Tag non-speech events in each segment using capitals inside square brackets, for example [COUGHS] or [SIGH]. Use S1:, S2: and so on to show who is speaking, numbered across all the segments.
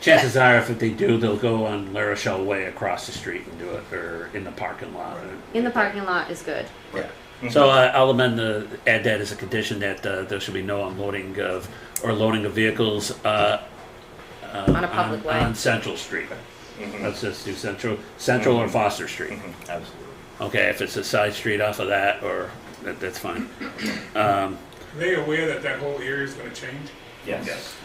S1: chances are, if they do, they'll go on La Rochelle Way across the street and do it, or in the parking lot.
S2: in the parking lot is good.
S1: Yeah. So uh, I'll amend the add that as a condition that uh, there should be no unloading of or loading of vehicles uh, uh,
S2: On a public
S1: on,
S2: way.
S1: on Central Street.
S3: Mm-hmm.
S1: Let's just do Central Central or Foster Street.
S3: Absolutely.
S1: Okay, if it's a side street off of that, or that, that's
S3: [COUGHS]
S1: fine. Um,
S4: Are they aware that that whole area is going to change?
S3: Yes.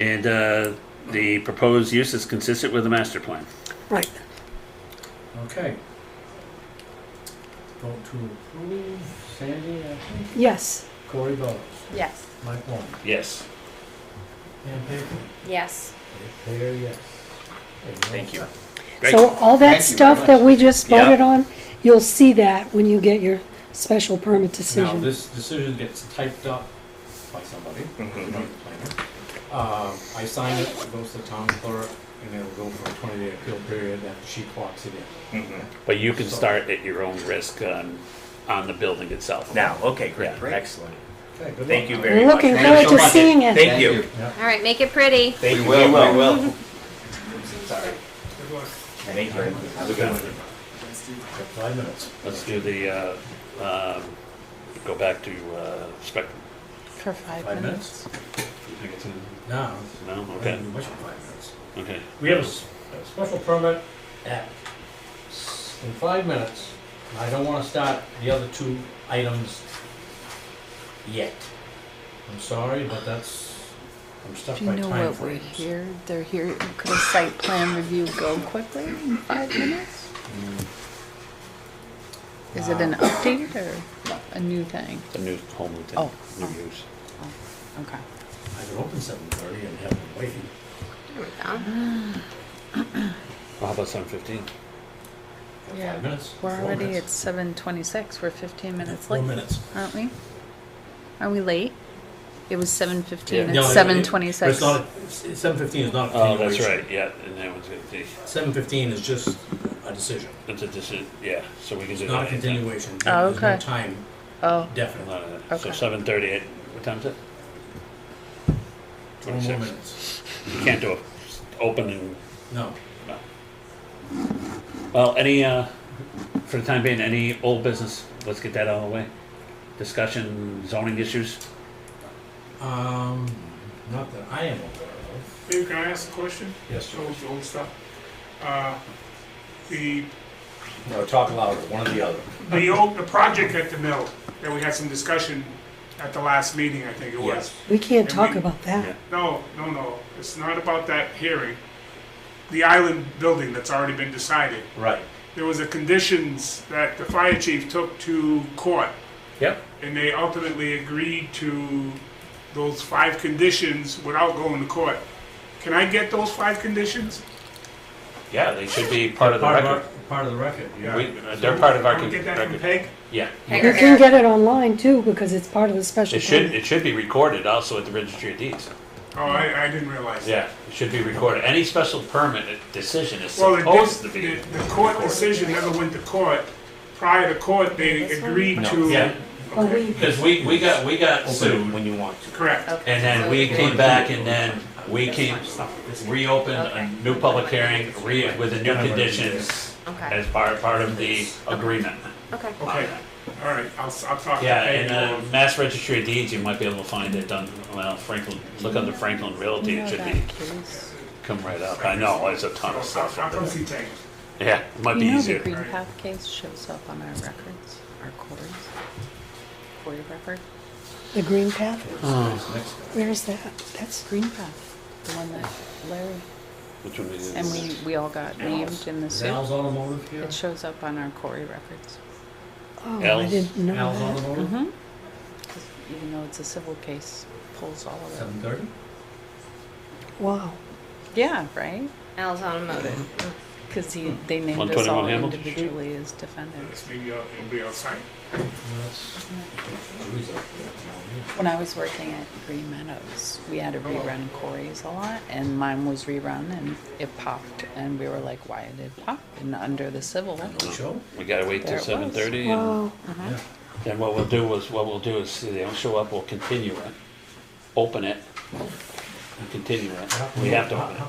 S1: and uh, the proposed use is consistent with the master plan.
S5: Right.
S6: Okay. Vote to approve, Sandy, I think,
S5: Yes.
S6: Corey votes,
S2: Yes.
S6: Mike Wong,
S3: Yes.
S6: and Baker,
S2: Yes.
S6: Baker, yes.
S3: Thank you.
S1: Great.
S5: So all that
S7: Thank you very
S5: stuff that we just
S1: Yeah.
S5: voted on, you'll see that when you get your special permit
S6: Now,
S5: decision.
S6: this decision gets typed up by somebody,
S3: Mhm.
S6: not the planner. Um, I sign it, it goes to town clerk, and it'll go for a twenty-day appeal period, and she clocks it in.
S1: But you can start at your own risk on, on the building itself.
S3: Now, okay, great,
S1: Yeah.
S7: Great.
S3: excellent.
S6: Okay, good
S3: Thank you
S6: luck.
S3: very much.
S5: Looking
S7: Thank
S5: forward
S7: you
S5: to
S7: so much.
S5: seeing it.
S3: Thank you.
S2: All right, make it pretty.
S3: Thank
S7: We
S3: you.
S7: will, we will.
S4: Good luck.
S3: Thank you. Have a good one.
S6: Got Five minutes.
S1: Let's do the, uh, um, go back to uh, Spectrum.
S5: For
S6: Five minutes? No,
S1: No,
S6: I
S1: okay,
S6: didn't do much in five minutes.
S1: okay.
S6: Mm-hmm. We have a s- a special permit at, s- in five minutes. and I don't want to start the other two items yet. I'm sorry, but that's, I'm stuck
S8: Do
S6: by
S8: you know
S6: time
S8: what we're
S6: frames.
S8: here? They're here, could a site plan review go quickly in five minutes?
S6: Mm.
S8: Is it an
S6: Uh,
S8: update or a new thing?
S1: The new home
S8: Oh.
S1: lieutenant, new use.
S8: Okay.
S6: I could open seven thirty and have them waiting.
S2: There we go.
S1: Well, How about seven fifteen?
S8: Yeah.
S6: Five minutes.
S8: We're
S6: four
S8: already at
S6: minutes,
S8: seven twenty-six, we're fifteen minutes
S6: Four
S8: late,
S6: minutes.
S8: aren't we? Are we late? It was seven fifteen,
S6: No, it-
S8: it's
S6: it-
S8: seven
S6: but
S8: twenty-six.
S6: It's not, seven fifteen is not a
S1: Oh, that's
S6: continuation.
S1: right, yeah, and that one's good, the-
S6: Seven fifteen is just a decision,
S1: it's a, this is, yeah, so we can do
S6: It's not
S1: that.
S6: a
S1: anytime.
S6: continuation.
S8: Oh,
S6: There's no
S8: okay.
S6: Time
S8: Oh,
S6: definite.
S1: Not a- Uh, So
S8: Okay.
S1: seven thirty-eight, what time is it?
S6: Four more
S1: 26.
S6: minutes.
S1: You can't do a opening,
S6: No.
S1: well, any, uh, for the time being, any old business, let's get that out of the way. Discussion zoning issues?
S6: Um, not that I am aware of.
S4: Dave, can I ask a question?
S6: Yes,
S4: Old, old stuff. Uh, the
S6: No, talk louder, one or the other.
S4: the old the project at the mill that we had some discussion at the last meeting. I think it was.
S6: Yes.
S5: We can't
S4: And
S5: talk
S4: we-
S5: about that.
S4: No, no, no. It's not about that hearing. The island building that's already been decided.
S6: Right.
S4: There was a conditions that the fire chief took to court
S1: Yep.
S4: and they ultimately agreed to those five conditions without going to court. Can I get those five conditions?
S1: Yeah, they should be part of the
S6: Part of
S1: record.
S6: our, part of the record, yeah.
S1: We- uh, They're part of our
S4: Can we
S1: con-
S4: get that from
S1: record.
S4: Peg?
S1: Yeah.
S5: You can get it online too, because it's part of the special
S1: It should,
S5: permit.
S1: it should be recorded also at the registry of deeds.
S4: Oh, I, I didn't realize that.
S1: Yeah, it should be recorded. Any special permit decision is
S4: Well, the,
S1: supposed to be.
S4: dis- the the court decision never went to court. Prior to court, they agreed to.
S1: Yeah,
S5: Well, we-
S1: because we, we got, we got
S6: Open it
S1: sued,
S6: when you want to.
S4: Correct.
S1: and then we came back, and then we came, reopened a new public hearing, re, with the new conditions
S2: Okay.
S1: as part, part of the agreement.
S2: Okay.
S4: Okay, all right, I'll, s- I'll talk to
S1: Yeah,
S4: Peg.
S1: and, uh, Mass Registry of Deeds, you might be able to find it done, well, Franklin, look under Franklin Realty, it should be, come right up. I know, it's a ton of
S4: I'll,
S1: stuff.
S4: I'll come
S1: up there.
S4: see Peg.
S1: Yeah, it might be
S8: You know the
S1: easier.
S8: Green Path case shows up on our records, our quarters, quarter record.
S5: The green path,
S6: Next guy.
S5: where's that? That's,
S8: Green Path, the one that Larry,
S1: Which one is
S8: and we, we all got named in the
S6: Is
S8: suit.
S6: Al's Automotive here?
S8: It shows up on our quarry records,
S5: oh, I
S1: L's.
S5: didn't know
S6: Al's
S5: that.
S6: Automotive?
S8: 'Cause even though it's a civil case, pulls all of it.
S6: Seven thirty?
S5: Wow.
S8: Yeah, right?
S2: Al's automotive.
S8: Because he, they named us
S1: 121
S8: all
S1: Hamilton Street?
S8: individually as defendants.
S4: It's maybe, uh, it'll be outside.
S8: When I was working at Green Meadows, we had to rerun quarries a lot, and mine was rerun, and it popped, and we were like, why did it pop? And under the civil,
S6: Show?
S1: We gotta wait
S8: There
S1: till
S8: it
S1: seven
S8: was.
S1: thirty, and
S5: Wow.
S1: then what we'll do is, what we'll do is, see, they don't show up, we'll continue it, open it, and continue it. We have to open it.